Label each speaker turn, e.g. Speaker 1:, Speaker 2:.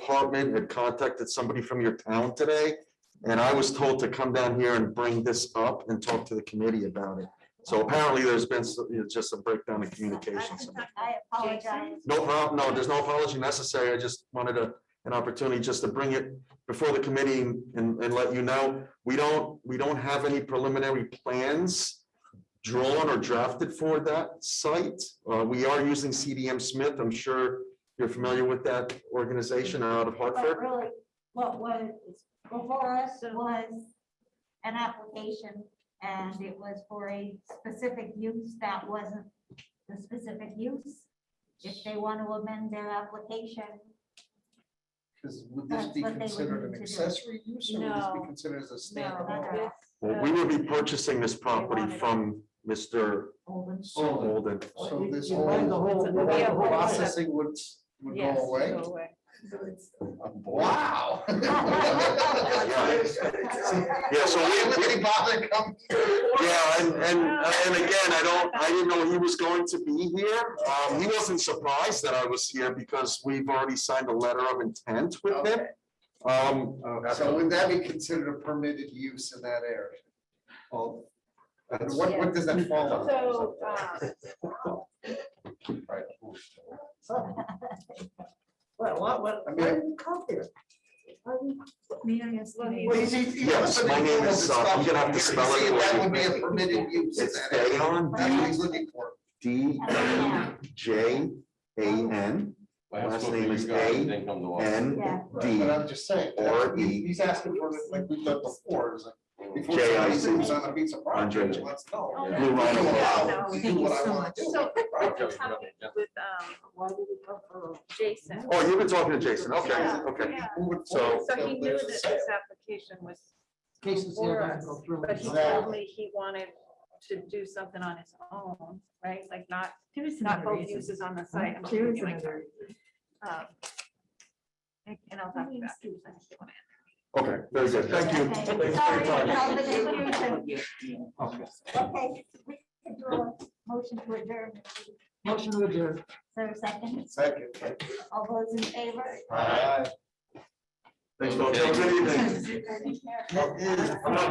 Speaker 1: department had contacted somebody from your town today. And I was told to come down here and bring this up and talk to the committee about it. So apparently there's been s- you know, just a breakdown in communication. somewhere.
Speaker 2: I apologize.
Speaker 1: No problem, no, there's no apology necessary. I just wanted a, an opportunity just to bring it before the committee and, and let you know. We don't, we don't have any preliminary plans drawn or drafted for that site. Uh, we are using CDM Smith. I'm sure you're familiar with that organization out of
Speaker 2: But
Speaker 1: Hartford.
Speaker 2: really, what was before us was an application and it was for a specific use that wasn't the specific use. If they want to amend their application,
Speaker 3: Because would this
Speaker 2: That's
Speaker 3: be
Speaker 2: what they would
Speaker 3: considered
Speaker 2: need
Speaker 3: an
Speaker 2: to do.
Speaker 3: accessory use or would this be
Speaker 4: No.
Speaker 3: considered as a
Speaker 4: No,
Speaker 3: standalone?
Speaker 4: that's-
Speaker 1: Well, we will be purchasing this property
Speaker 4: Uh, wanted it.
Speaker 1: from Mr.
Speaker 2: Olden.
Speaker 3: So,
Speaker 1: Holden.
Speaker 3: so this
Speaker 5: You buy the
Speaker 3: whole,
Speaker 5: whole-
Speaker 3: the
Speaker 4: Yeah,
Speaker 3: whole
Speaker 4: but-
Speaker 3: processing would, would go
Speaker 4: Yes,
Speaker 3: away?
Speaker 4: go away.
Speaker 3: Wow.
Speaker 1: Yeah, so we-
Speaker 3: Why would anybody come?
Speaker 1: Yeah, and, and, and again, I don't, I didn't know he was going to be here. Um, he wasn't surprised that I was here because we've already signed a letter of intent with him. Um,
Speaker 3: So would that be considered a permitted use in that area? Well, and what, what does that fall under?
Speaker 4: So, um,
Speaker 5: uh,
Speaker 3: Right.
Speaker 5: What, what, what,
Speaker 3: I mean-
Speaker 5: why did you come here? Why did you-
Speaker 4: well,
Speaker 3: Well,
Speaker 4: he's-
Speaker 3: he's- he's- he's
Speaker 1: Yes,
Speaker 3: looking
Speaker 1: my
Speaker 3: for
Speaker 1: name
Speaker 3: the
Speaker 1: is, uh, I'm
Speaker 3: discussion
Speaker 1: gonna have to
Speaker 3: here.
Speaker 1: spell it
Speaker 3: See, That
Speaker 1: away.
Speaker 3: would be a permitted use in
Speaker 1: it's
Speaker 3: that area. That's what
Speaker 1: Dayon,
Speaker 3: he's looking for.
Speaker 1: D J A N Last
Speaker 6: book
Speaker 1: name
Speaker 6: you
Speaker 1: is
Speaker 6: got, I
Speaker 1: A,
Speaker 6: think, on the wall.
Speaker 1: N
Speaker 2: Yeah.
Speaker 1: D.
Speaker 3: But I'm just saying, that
Speaker 1: or
Speaker 3: he-
Speaker 1: E.
Speaker 3: he's asking for it like we've done before, is like. before
Speaker 1: J I
Speaker 3: somebody
Speaker 1: C.
Speaker 3: moves On a piece of property,
Speaker 1: Andre.
Speaker 3: let's know.
Speaker 4: Oh,
Speaker 1: Blue Rhino.
Speaker 3: Do what I
Speaker 4: No,
Speaker 3: want to
Speaker 4: thank
Speaker 3: do,
Speaker 4: you
Speaker 3: what I
Speaker 4: so
Speaker 3: wanna
Speaker 4: much.
Speaker 3: do.
Speaker 4: So,
Speaker 3: Right.
Speaker 4: we're talking with, um,
Speaker 5: Why did you come for?
Speaker 4: Jason.
Speaker 1: Oh, you've been talking to Jason, okay,
Speaker 4: Yeah,
Speaker 1: okay.
Speaker 4: yeah.
Speaker 3: Move it
Speaker 1: So-
Speaker 3: forward,
Speaker 4: So he knew
Speaker 3: there's a
Speaker 4: that this
Speaker 3: sale.
Speaker 4: application was,
Speaker 5: Cases
Speaker 4: For
Speaker 5: here
Speaker 4: us,
Speaker 5: doesn't go through.
Speaker 4: but he told me he wanted to do something on his own, right? Like not, not both uses on the site. I'm
Speaker 5: There is
Speaker 4: thinking like,
Speaker 5: another.
Speaker 4: um, And and I'll talk to you about. it.
Speaker 1: Okay, very good, thank you. Thanks for
Speaker 2: Okay,
Speaker 1: your
Speaker 2: sorry for
Speaker 1: time.
Speaker 2: all the confusion.
Speaker 5: Okay.
Speaker 2: Okay, we can do a motion to adjourn. Is
Speaker 5: Motion to adjourn.
Speaker 2: there a second?
Speaker 3: Second.
Speaker 2: All those in favor?
Speaker 3: Aye.
Speaker 1: Thanks, folks. Have a good evening.
Speaker 2: Take care.
Speaker 3: That is-